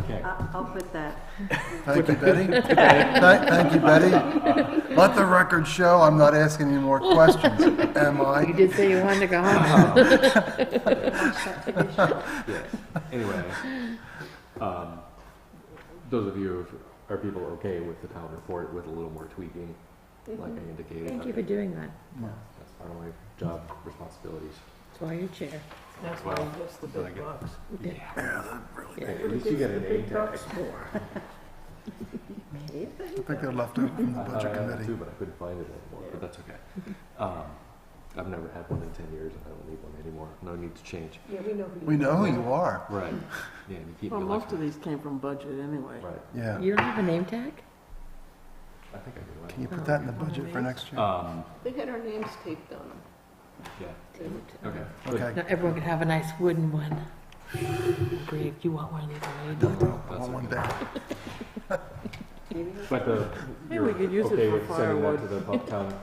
Okay. I'll, I'll put that. Thank you, Betty. Thank thank you, Betty. Let the record show I'm not asking any more questions, am You I? did say you wanted to go home. Oh. Yes, anyway, um, those of you, who- are people okay with the town report with a little more tweaking, like I indicated? Thank you for doing that. That's part of my job responsibilities. That's why you're chair. That's why he gets the big bucks. Hey, At least you get an A tag. I think they're left over from the I thought I Mm-hmm. budget had one too, committee. but I couldn't find it anymore, but that's okay. Um, I've never had one in ten years, and I don't need one anymore, no need to change. Yeah, we know who We know who you are. Right. Yeah, you keep me Well, most of like. these came from budget anyway. Right, Yeah. You don't have a name tag? I think I do. I Can you don't put that in the budget for next know. year? Um, They had our names taped on them. yeah, okay. good. Okay. Not everyone could have a nice wooden one. Greg, you want one of these made? No, no, I That's want one okay. day. But the, uh, Maybe you're we could use it okay for with sending that firewood. to the pub- town,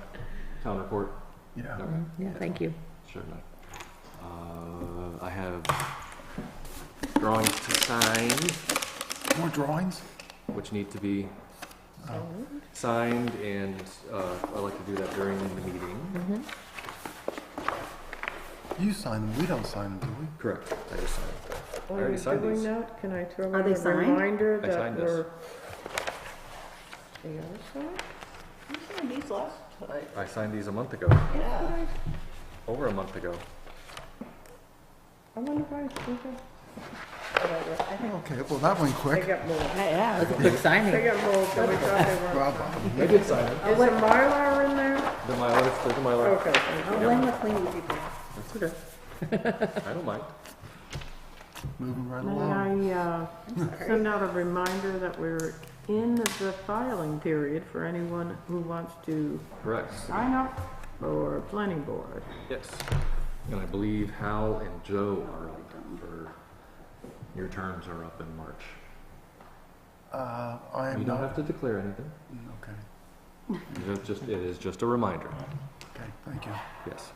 town report? Yeah. Okay, Mm, Yeah, thank you. sure enough. Uh, I have drawings to sign, More drawings? which need to be signed, and uh, I like to do that during the meeting. You sign them, we don't sign them, do we? Correct. I just signed. I already signed Oh, doing these. that, can I throw Are in they a signed? reminder I that signed this. we're? They are signed? You signed these last time. I signed these a month ago, Yeah. over a month ago. I wonder if I, okay. Whatever. I think Okay, well, that went They quick. got more, That's a quick they Oh, signing. got more, but we thought they weren't. Bravo. I did sign it. Is the Mylar in there? The Mylar, there's the Mylar. Okay, thank you. I'll blame the cleaning people. That's okay. I don't mind. Moving right along. May I uh, send out a reminder that we're in the filing period for anyone who wants to Correct. sign up for planning board? Yes. And I believe Hal and Joe are up for, your terms are up in March. Uh, I You am don't not, have to declare anything. okay, You have just, it is just a reminder. okay, thank you. Yes.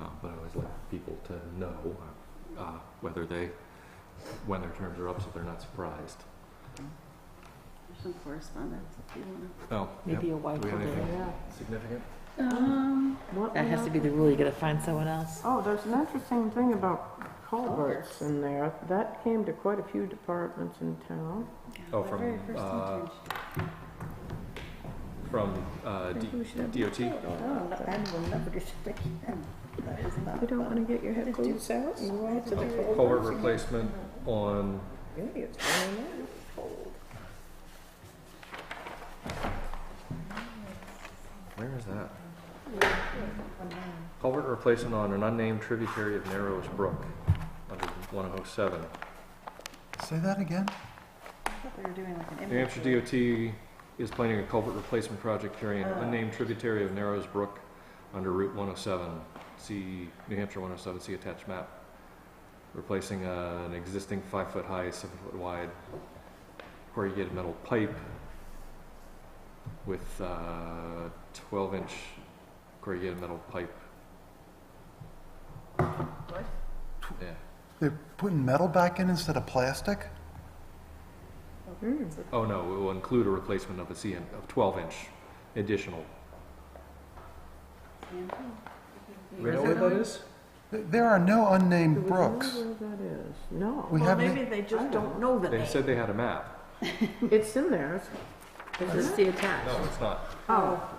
Um, but I always like people to know, uh, whether they, when their terms are up, so they're not surprised. There's some correspondence if you want to. Oh, yep. Maybe a white Do we have one. anything Yeah. significant? Um, what That has was- to be the rule. You gotta find someone else. Oh, there's an interesting thing about culverts in there. That came to quite a few departments in town. Oh, from, uh, From, uh, D- DOT? Oh, I will never do something again. That is not You don't want to get your head Let's do boots out? You want to the something. Culvert replacement on, Yeah, it's going in. where is that? Culvert replacement on an unnamed tributary of Narrows Brook, under 107. Say that again? I thought they were doing like an New Hampshire inventory. DOT is planning a culvert replacement project carrying an unnamed tributary of Narrows Brook under Route 107. See New Hampshire 107, see attached map. Replacing uh, an existing five-foot-high, seven-foot-wide corrugated metal pipe with 12-inch corrugated metal pipe. Yeah, They're putting metal back in instead of plastic? Hmm. oh no, it will include a replacement of a CM, of 12-inch additional. Do we know where that is? Th- There are no Do unnamed we know brooks. where that is? No. We have, na- they just don't know the They said they had a map. It's in there. Is this the attached? No, it's not. Oh,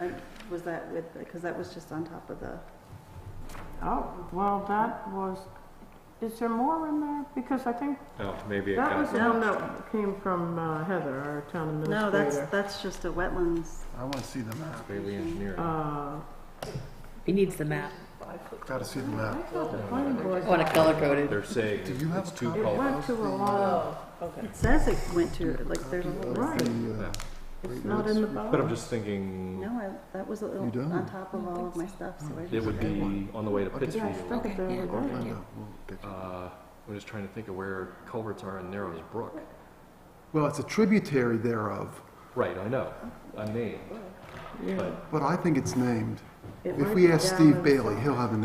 And Was that with, because that was just on top of the, oh, well, that was, is there more in there? Because I think No, maybe it that got was the from. one that came from uh, Heather, our town no, that's, administrator. that's just a wetlands. I want to see the map. Bailey Engineering. Uh, He needs the map. Got to see the I map. thought the planning I board, want it color coded. They're saying Do you have it's a two copy? it called. went to a lot of, It says it went to, like, there's a Of little, Right. the, uh, it's not in the But I'm bylaw. just thinking, no, I- that was a little You don't? on top of all of my stuff, so I it just. would be on the way to Yeah, I Pittsfield. thought that they were Okay, yeah. there. Linda, we'll get you. Uh, I'm just trying to think of where culverts are in Narrows Brook. Well, it's a tributary thereof, Right, I know, unnamed, Yeah. but but I think it's named. It If might we be ask down Steve in- Bailey, he'll have a